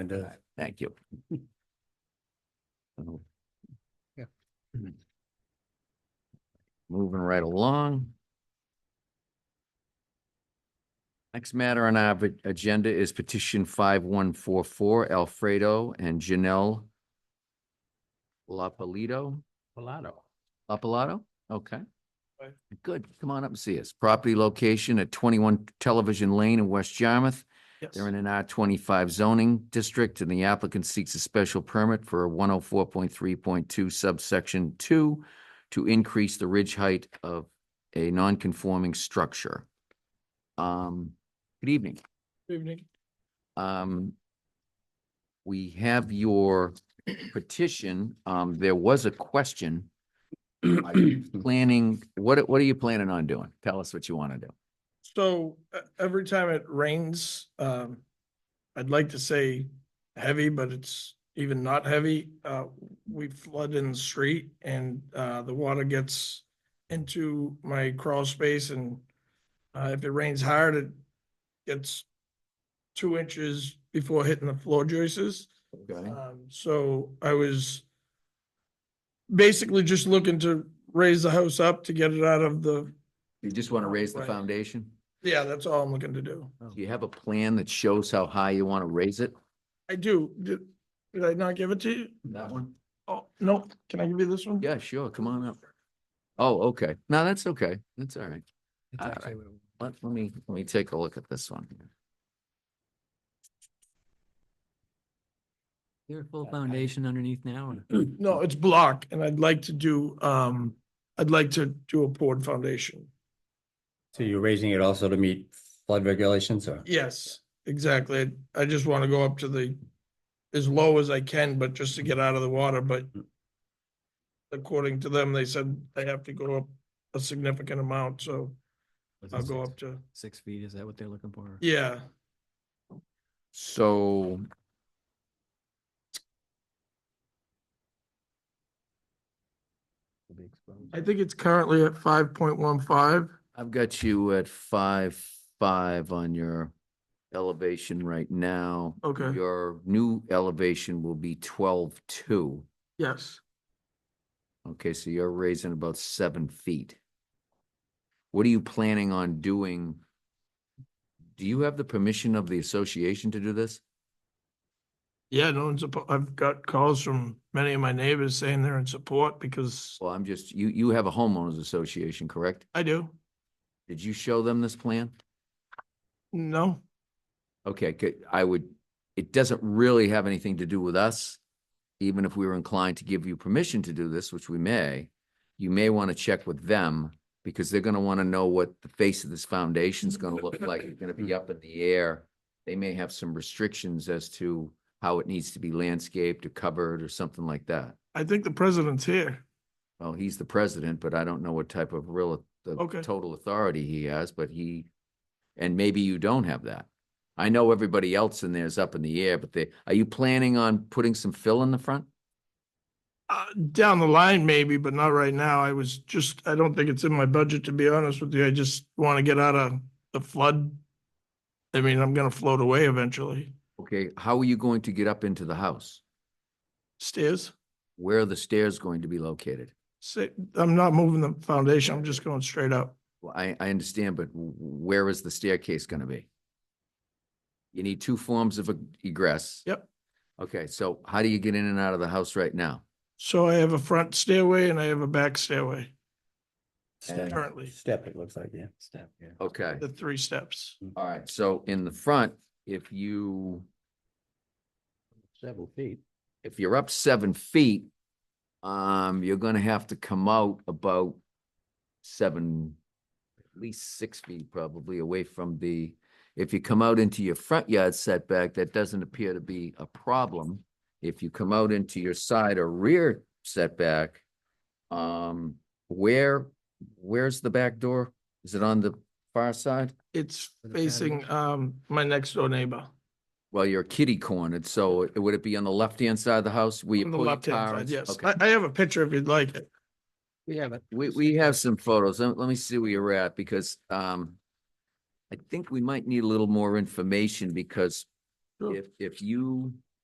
It does. Thank you. Uh-huh. Yeah. Moving right along. Next matter on our v- agenda is petition five one four four Alfredo and Janelle Lapalito. Palato. Lapalato? Okay. Right. Good. Come on up and see us. Property location at twenty-one Television Lane in West Yarmouth. Yes. They're in an R twenty-five zoning district and the applicant seeks a special permit for a one oh four point three point two subsection two to increase the ridge height of a non-conforming structure. Um, good evening. Evening. Um, we have your petition. Um, there was a question. Are you Planning, what, what are you planning on doing? Tell us what you want to do. So e- every time it rains, um, I'd like to say heavy, but it's even not heavy. Uh, we flood in the street and, uh, the water gets into my crawl space and, uh, if it rains hard, it gets two inches before hitting the floor joists. Um, so I was basically just looking to raise the house up to get it out of the, You just want to raise the Right. foundation? yeah, that's all I'm looking to do. Do you have a plan that shows how high you want to raise it? I do. Did, did I not give it to you? That one? Oh, no, can I give you this one? Yeah, sure. Come on up. Oh, okay. No, that's okay. That's all right. All right. Let, let me, let me take a look at this one. Your full foundation underneath now, or- No, it's block and I'd like to do, um, I'd like to do a poured foundation. So you're raising it also to meet flood regulations or? Yes, exactly. I just want to go up to the, as low as I can, but just to get out of the water, but according to them, they said I have to go up a significant amount, so was it I'll go six- up to, Six feet, is that what they're looking for? yeah. So. I think it's currently at five point one five. I've got you at five, five on your elevation right now. Okay. Your new elevation will be twelve, two. Yes, Okay, so you're raising about seven feet. What are you planning on doing? Do you have the permission of the association to do this? yeah, no one's, oppo- I've got calls from many of my neighbors saying they're in support because Well, I'm just, you, you have a homeowners association, correct? I do. Did you show them this plan? No, Okay, good. I would, it doesn't really have anything to do with us. Even if we were inclined to give you permission to do this, which we may, you may want to check with them because they're going to want to know what the face of this foundation is going to look like. It's going to be up in the air. They may have some restrictions as to how it needs to be landscaped or covered or something like that. I think the president's here. Well, he's the president, but I don't know what type of real, the Okay. total authority he has, but he, and maybe you don't have that. I know everybody else in there is up in the air, but they, are you planning on putting some fill in the front? Uh, down the line maybe, but not right now. I was just, I don't think it's in my budget, to be honest with you. I just want to get out of the flood. I mean, I'm gonna float away eventually. Okay, how are you going to get up into the house? Stairs, Where are the stairs going to be located? say, I'm not moving the foundation. I'm just going straight up. Well, I, I understand, but w- where is the staircase gonna be? You need two forms of eg- egress. Yep. Okay, so how do you get in and out of the house right now? So I have a front stairway and I have a back stairway, Step, Currently. step, it looks like, yeah. Step, yeah. Okay. the three steps. All right, so in the front, if you, Several feet. if you're up seven feet, um, you're gonna have to come out about seven, at least six feet probably away from the, if you come out into your front yard setback, that doesn't appear to be a problem. If you come out into your side or rear setback, um, where, where's the back door? Is it on the far side? It's With a facing, um, my next door neighbor. Well, you're kitty cornered, so it- would it be on the left-hand side of the house? where you On the pull your left-hand car side, and- yes. okay. I, I have a picture if you'd like it. We have it. We, we have some photos. Let, let me see where you're at because, um, I think we might need a little more information because Sure. if, if you